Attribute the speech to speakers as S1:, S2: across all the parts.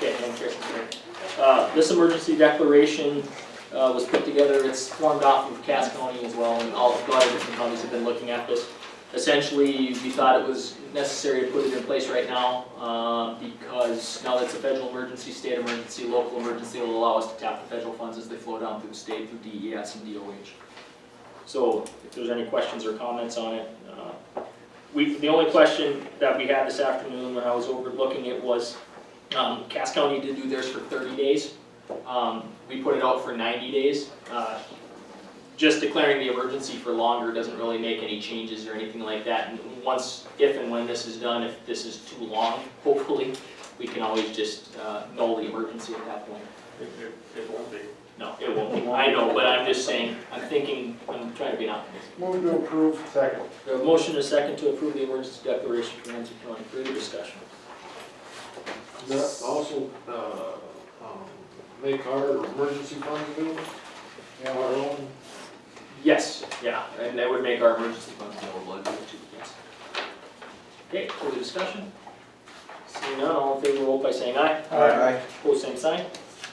S1: thank you. Uh, This emergency declaration uh, was put together, it's formed off of Cass County as well, and all, a lot of different counties have been looking at this. Essentially, we thought it was necessary to put it in place right now, uh, because now that it's a federal emergency, state emergency, local emergency, it'll allow us to tap the federal funds as they flow down through the state, through DES and DOH. So if there's any questions or comments on it, uh, we, the only question that we had this afternoon when I was overlooking it was, um, Cass County did do theirs for thirty days. Um, we put it out for ninety days. Uh, Just declaring the emergency for longer doesn't really make any changes or anything like that. And once, if and when this is done, if this is too long, hopefully, we can always just, uh, null the emergency at that point.
S2: It, it, it won't be.
S1: No, it won't be. I know, but I'm just saying, I'm thinking, I'm trying to be an optimist.
S3: Move to approve. Second.
S1: We have a motion and a second to approve the emergency declaration for Ramsey County. Further discussion?
S4: Does that also, uh, um, make our emergency fund available? Our own?
S1: Yes, yeah, and that would make our emergency funds available, I believe, too, yes. Okay, further discussion? Seeing none, all in favor, vote by saying aye.
S3: Aye.
S1: Pose same sign,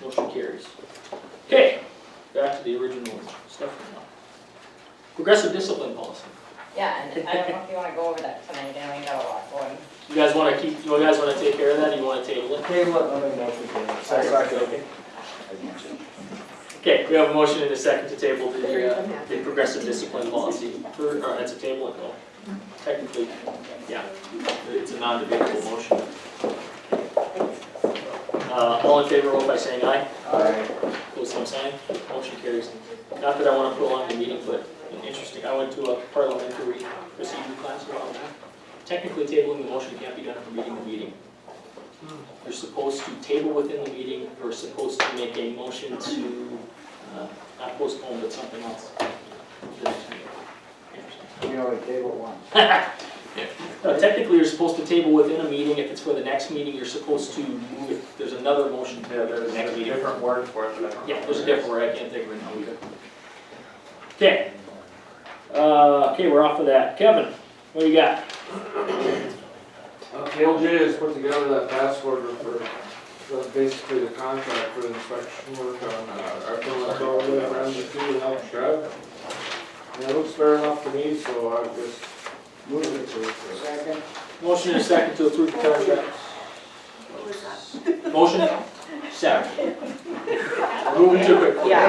S1: motion carries. Okay, back to the original stuff for now. Progressive discipline policy.
S5: Yeah, and I don't know if you wanna go over that tonight, I mean, got a lot going.
S1: You guys wanna keep, you guys wanna take care of that, you wanna table it?
S3: Table it, I'll make motion to it. Second.
S1: Okay, we have a motion and a second to table the, uh, the progressive discipline policy. For, or that's a table and go. Technically, yeah, it's a non-debatable motion. Uh, all in favor, vote by saying aye.
S3: Aye.
S1: Pose same sign, motion carries. Not that I wanna prolong the meeting, but interesting, I went to a parliamentary procedure class a while back. Technically tabling the motion can't be done from meeting to meeting. You're supposed to table within the meeting, you're supposed to make a motion to, uh, not postpone, but something else. The next meeting. Interesting.
S3: You know, we table one.
S1: No, Technically, you're supposed to table within a meeting, if it's for the next meeting, you're supposed to move, if there's another motion to the next meeting.
S2: word for it, but I don't know
S1: Yeah, there's a
S2: what it is.
S1: different word, I can't think of it now either. Okay. Uh, okay, we're off of that. Kevin, what do you got?
S4: Uh, KLJ has put together that task order for, that's basically the contract for the inspection work on, uh, our building over around the two and out drive. And it looks fair enough to me, so I just move it to.
S3: Second.
S1: Motion and a second to approve the contract. Motion, second.
S4: Moving to it.
S5: Yeah.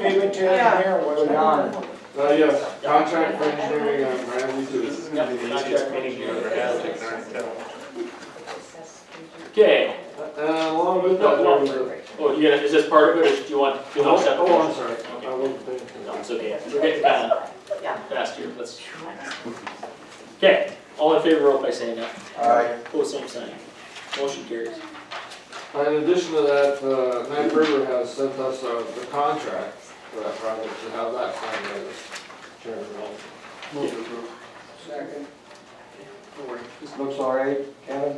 S3: Maybe to engineer, what we on?
S4: Uh, yes, contract for engineering on Ramsey two.
S2: This is gonna be the easiest meeting you ever had, like, nine, ten.
S1: Okay,
S4: Uh, along with that, there was a.
S1: oh, you gonna, is this part of it, or do you want, do you want to accept the
S4: Oh, I'm
S1: motion?
S4: sorry, I wasn't thinking.
S1: No, it's okay, we're getting kind of fast here, let's. Okay, all in favor, vote by saying aye.
S3: Aye.
S1: Pose same sign. Motion carries.
S4: In addition to that, uh, Knife River has sent us uh, the contract for that project, to have that signed by this chairman.
S3: Move to approve. Second. This looks all right, Kevin?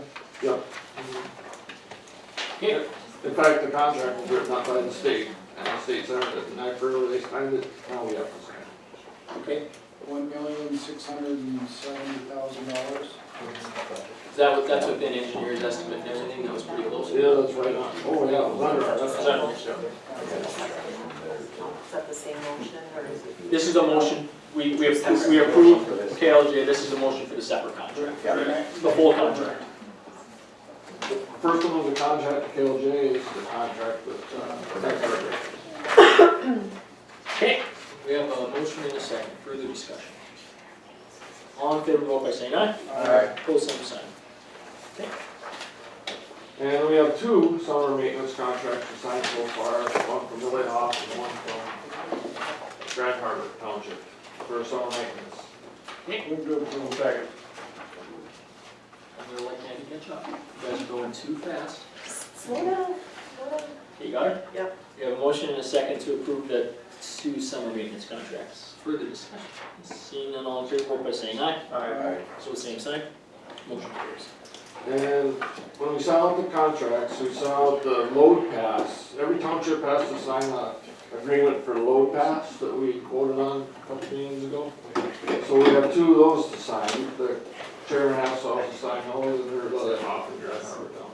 S1: Okay,
S4: In fact, the contract was written out by the state, and the state sent it, Knife River, they signed it, now we have to sign it.
S1: okay,
S6: one million, six hundred and seventy thousand dollars.
S1: Is that what, that's within engineer's estimate and everything, that was pretty close.
S4: Yeah, that's right on, oh, yeah, it was under, our-
S1: Is
S4: that's
S1: that-
S7: Is that the same motion, or is it?
S1: This is a motion, we, we appro- we approve KLJ, this is a motion for the separate contract, the whole contract.
S4: The First one was the contract to KLJ, is the contract with uh, Knife River.
S1: Okay, we have a motion and a second, further discussion. All in favor, vote by saying aye.
S3: Aye.
S1: Pose same sign.
S4: And we have two summer maintenance contracts to sign so far, one from Lily Hoff and one from Grand Harbor Township for summer maintenance.
S3: Move to approve. Second.
S1: I'm gonna let Candy catch up, you guys are going too fast.
S7: Slow down, slow down.
S1: Okay, You got it?
S7: Yep.
S1: We have a motion and a second to approve the two summer maintenance contracts, further discussion. Seeing none, all in favor, vote by saying aye.
S3: Aye.
S1: So same sign, motion carries.
S4: And when we saw out the contracts, we saw out the load pass, every township has to sign a agreement for load pass that we quoted on a couple meetings ago. So we have two of those to sign, the chairman has to also sign those, and there's Lily Hoff and Grand Harbor Township.